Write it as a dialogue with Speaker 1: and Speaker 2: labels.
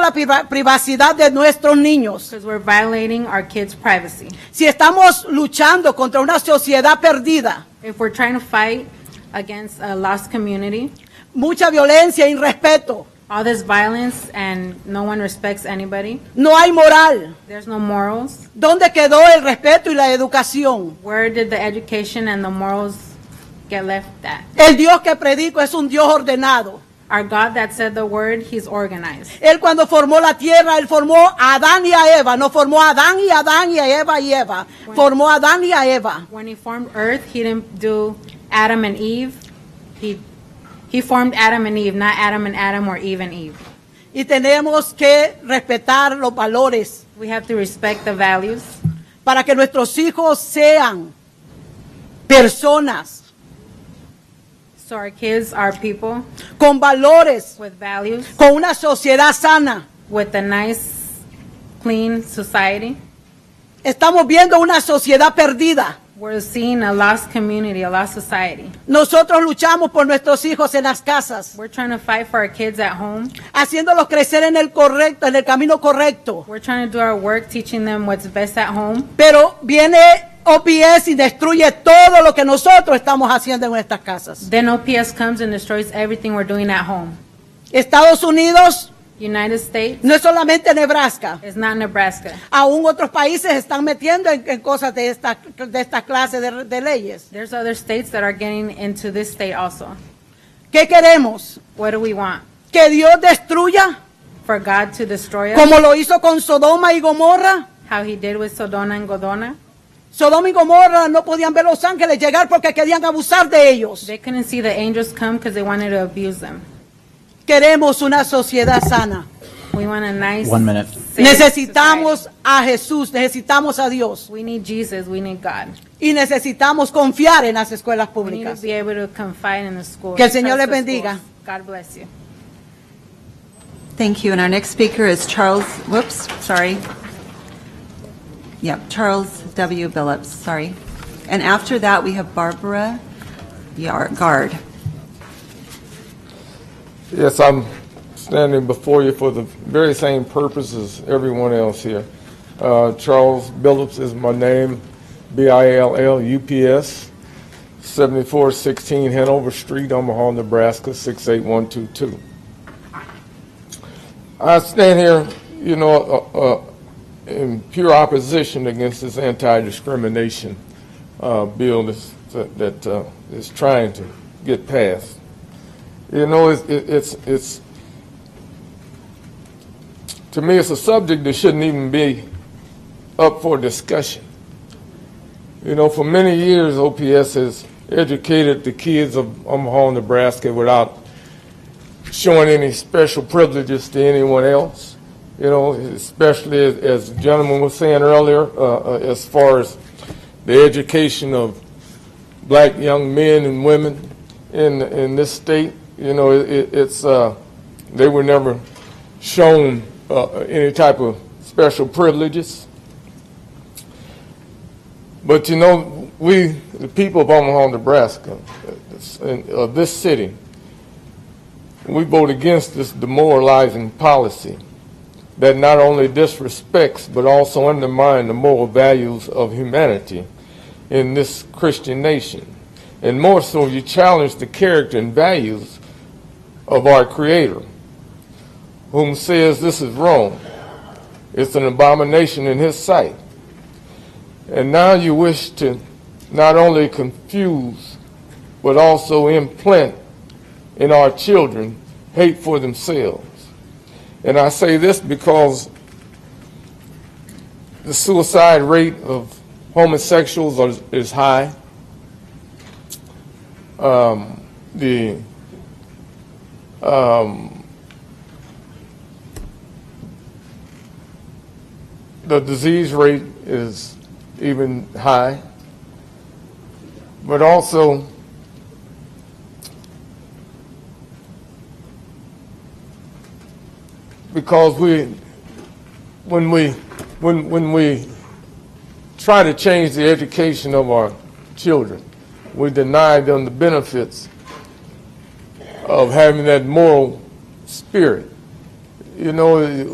Speaker 1: la priva- privacidad de nuestros niños,
Speaker 2: because we're violating our kids' privacy.
Speaker 1: si estamos luchando contra una sociedad perdida,
Speaker 2: If we're trying to fight against a lost community,
Speaker 1: mucha violencia, irrespeto,
Speaker 2: all this violence and no one respects anybody,
Speaker 1: no hay moral,
Speaker 2: there's no morals.
Speaker 1: ¿dónde quedó el respeto y la educación?
Speaker 2: Where did the education and the morals get left at?
Speaker 1: El Dios que predico es un Dios ordenado.
Speaker 2: Our God that said the word, he's organized.
Speaker 1: Él cuando formó la tierra, él formó a Adán y a Eva, no formó a Adán y a Adán y a Eva y Eva, formó a Adán y a Eva.
Speaker 2: When he formed earth, he didn't do Adam and Eve. He, he formed Adam and Eve, not Adam and Adam or Eve and Eve.
Speaker 1: Y tenemos que respetar los valores
Speaker 2: We have to respect the values
Speaker 1: para que nuestros hijos sean personas
Speaker 2: so our kids are people
Speaker 1: con valores,
Speaker 2: with values,
Speaker 1: con una sociedad sana.
Speaker 2: with a nice, clean society.
Speaker 1: Estamos viendo una sociedad perdida.
Speaker 2: We're seeing a lost community, a lost society.
Speaker 1: Nosotros luchamos por nuestros hijos en las casas,
Speaker 2: We're trying to fight for our kids at home.
Speaker 1: haciéndolos crecer en el correcto, en el camino correcto.
Speaker 2: We're trying to do our work, teaching them what's best at home.
Speaker 1: Pero viene OPS y destruye todo lo que nosotros estamos haciendo en nuestras casas.
Speaker 2: Then OPS comes and destroys everything we're doing at home.
Speaker 1: Estados Unidos
Speaker 2: United States
Speaker 1: no es solamente Nebraska.
Speaker 2: is not Nebraska.
Speaker 1: Aún otros países están metiendo en, en cosas de esta, de esta clase de, de leyes.
Speaker 2: There's other states that are getting into this state also.
Speaker 1: ¿Qué queremos?
Speaker 2: What do we want?
Speaker 1: ¿Que Dios destruya
Speaker 2: For God to destroy us,
Speaker 1: como lo hizo con Sodoma y Gomorra?
Speaker 2: how he did with Sodoma and Godona?
Speaker 1: Sodoma y Gomorra no podían ver los ángeles llegar porque querían abusar de ellos.
Speaker 2: They couldn't see the angels come because they wanted to abuse them.
Speaker 1: Queremos una sociedad sana.
Speaker 2: We want a nice.
Speaker 3: One minute.
Speaker 2: safe society.
Speaker 1: Necesitamos a Jesús, necesitamos a Dios.
Speaker 2: We need Jesus. We need God.
Speaker 1: y necesitamos confiar en las escuelas
Speaker 2: We need to
Speaker 1: públicas.
Speaker 2: be able to confide in the school.
Speaker 1: Que el Señor
Speaker 2: trust
Speaker 1: les
Speaker 2: the
Speaker 1: bendiga.
Speaker 2: schools. God bless you.
Speaker 4: Thank you. And our next speaker is Charles, whoops, sorry. Yep, Charles W. Billups, sorry. And after that, we have Barbara Yar- Guard.
Speaker 5: Yes, I'm standing before you for the very same purpose as everyone else here. Uh, Charles Billups is my name, B-I-L-L-U-P-S, 7416 Hanover Street, Omaha, Nebraska, 68122. I stand here, you know, uh, uh, in pure opposition against this anti-discrimination uh, bill that's- that that, uh, is trying to get passed. You know, it's, it- it's, it's, to me, it's a subject that shouldn't even be up for discussion. You know, for many years, OPS has educated the kids of Omaha, Nebraska without showing any special privileges to anyone else. You know, especially as, as the gentleman was saying earlier, uh, uh, as far as the education of black young men and women in in this state. You know, it, it, it's uh, they were never shown uh, any type of special privileges. But you know, we the people of Omaha, Nebraska, uh, this- and, uh, this city, we vote against this demoralizing policy that not only disrespects but also undermines the moral values of humanity in this Christian nation. And more so, you challenge the character and values of our Creator, whom says this is wrong. It's an abomination in His sight. And now you wish to not only confuse, but also implant in our children hate for themselves. And I say this because the suicide rate of homosexuals are, is high. Um, the um, the disease rate is even high, but also because we, when we, when when we try to change the education of our children. We deny them the benefits of having that moral spirit. You know,